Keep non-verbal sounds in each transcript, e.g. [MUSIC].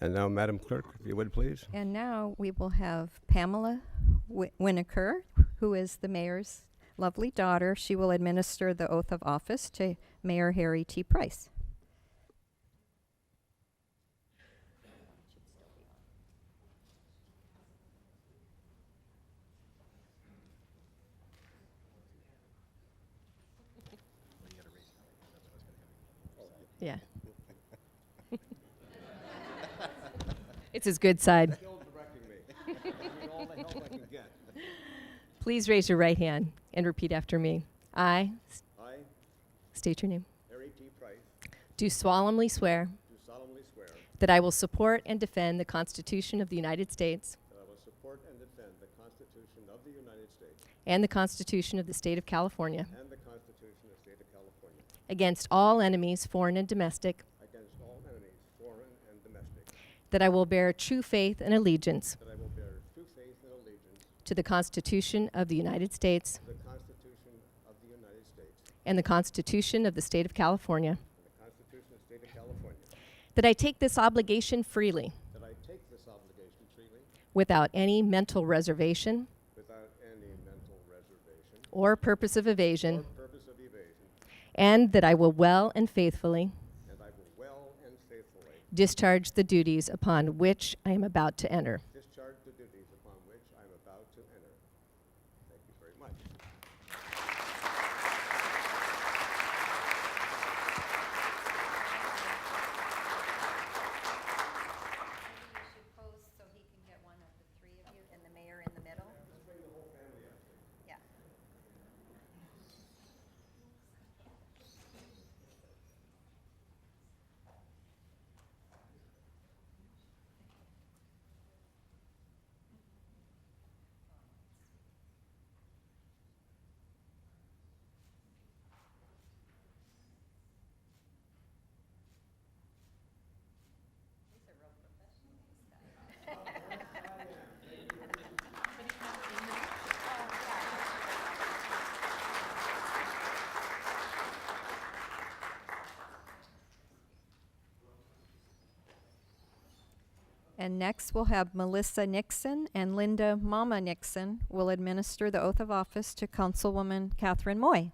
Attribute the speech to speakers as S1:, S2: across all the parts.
S1: And now, Madam Clerk, if you would, please.
S2: And now we will have Pamela Wi- Winokur, who is the mayor's lovely daughter. She will administer the oath of office to Mayor Harry T. Price. Yeah.
S3: [LAUGHS] It's his good side. Please raise your right hand and repeat after me. I s-
S1: I,
S3: state your name.
S1: Harry T. Price,
S3: Do solemnly swear
S1: do solemnly swear that
S3: that I will support and defend the Constitution of the United States
S1: I will support and defend the Constitution of the United States
S3: and the Constitution of the State of California
S1: and the Constitution of the State of California
S3: against all enemies, foreign and domestic,
S1: against all enemies, foreign and domestic,
S3: that I will bear true faith and allegiance
S1: that I will bear true faith and allegiance
S3: to the Constitution of the United States
S1: to the Constitution of the United States
S3: and the Constitution of the State of California,
S1: and the Constitution of the State of California,
S3: that I take this obligation freely
S1: that I take this obligation freely
S3: without any mental reservation
S1: without any mental reservation
S3: or purpose of
S1: or
S3: evasion,
S1: purpose of evasion,
S3: and that I will well and faithfully
S1: and I will well and faithfully
S3: discharge the duties upon which I am about to enter.
S1: Discharge the duties upon which I am about to enter. Thank you very much.
S2: You should pose so he can get one of the three of you and the mayor in the middle. Yeah. And next, we'll have Melissa Nixon and Linda Mama Nixon will administer the oath of office to Councilwoman Catherine Moy.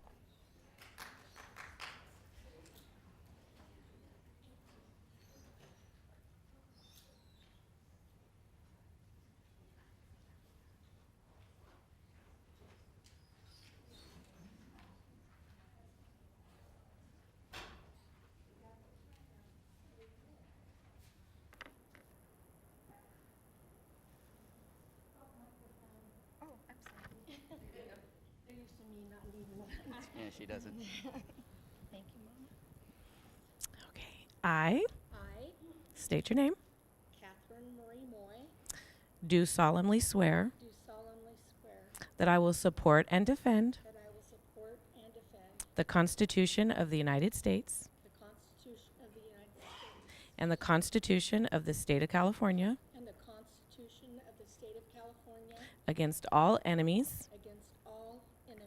S4: Yeah, she doesn't.
S5: Okay. I
S6: I,
S5: state your name.
S6: Catherine Marie Moy,
S5: Do solemnly swear
S6: do solemnly swear
S5: that I will support and defend
S6: that I will support and defend
S5: the Constitution of the United States
S6: the Constitution of the United States
S5: and the Constitution of the State of California
S6: and the Constitution of the State of California
S5: against all enemies,
S6: against all enemies,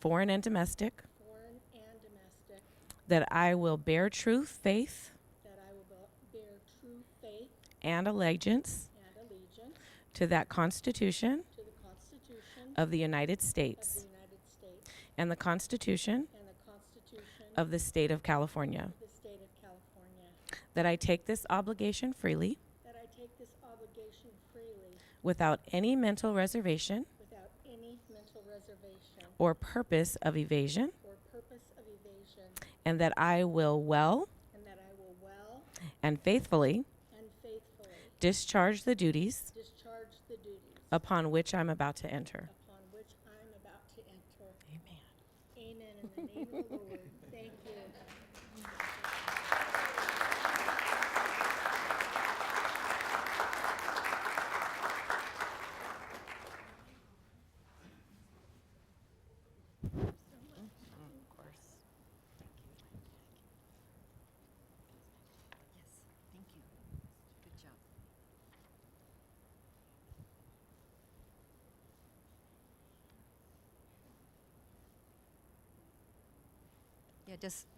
S5: foreign and domestic,
S6: foreign and domestic,
S5: that I will bear true faith
S6: that I will be- bear true faith
S5: and allegiance
S6: and allegiance
S5: to that Constitution
S6: to the Constitution
S5: of the United
S6: of the
S5: States
S6: United States
S5: and the Constitution
S6: and the Constitution of
S5: of the State of California,
S6: the State of California,
S5: that I take this obligation freely
S6: that I take this obligation freely
S5: without any mental reservation
S6: without any mental reservation
S5: or purpose of evasion.
S6: or purpose of evasion,
S5: and that I will well
S6: and that I will well
S5: and faithfully
S6: and faithfully
S5: discharge the duties
S6: discharge the duties
S5: upon which I'm about to enter.
S6: upon which I am about to enter.
S5: Amen.
S6: Amen. In the name of the Lord. Thank you.
S2: Yeah, just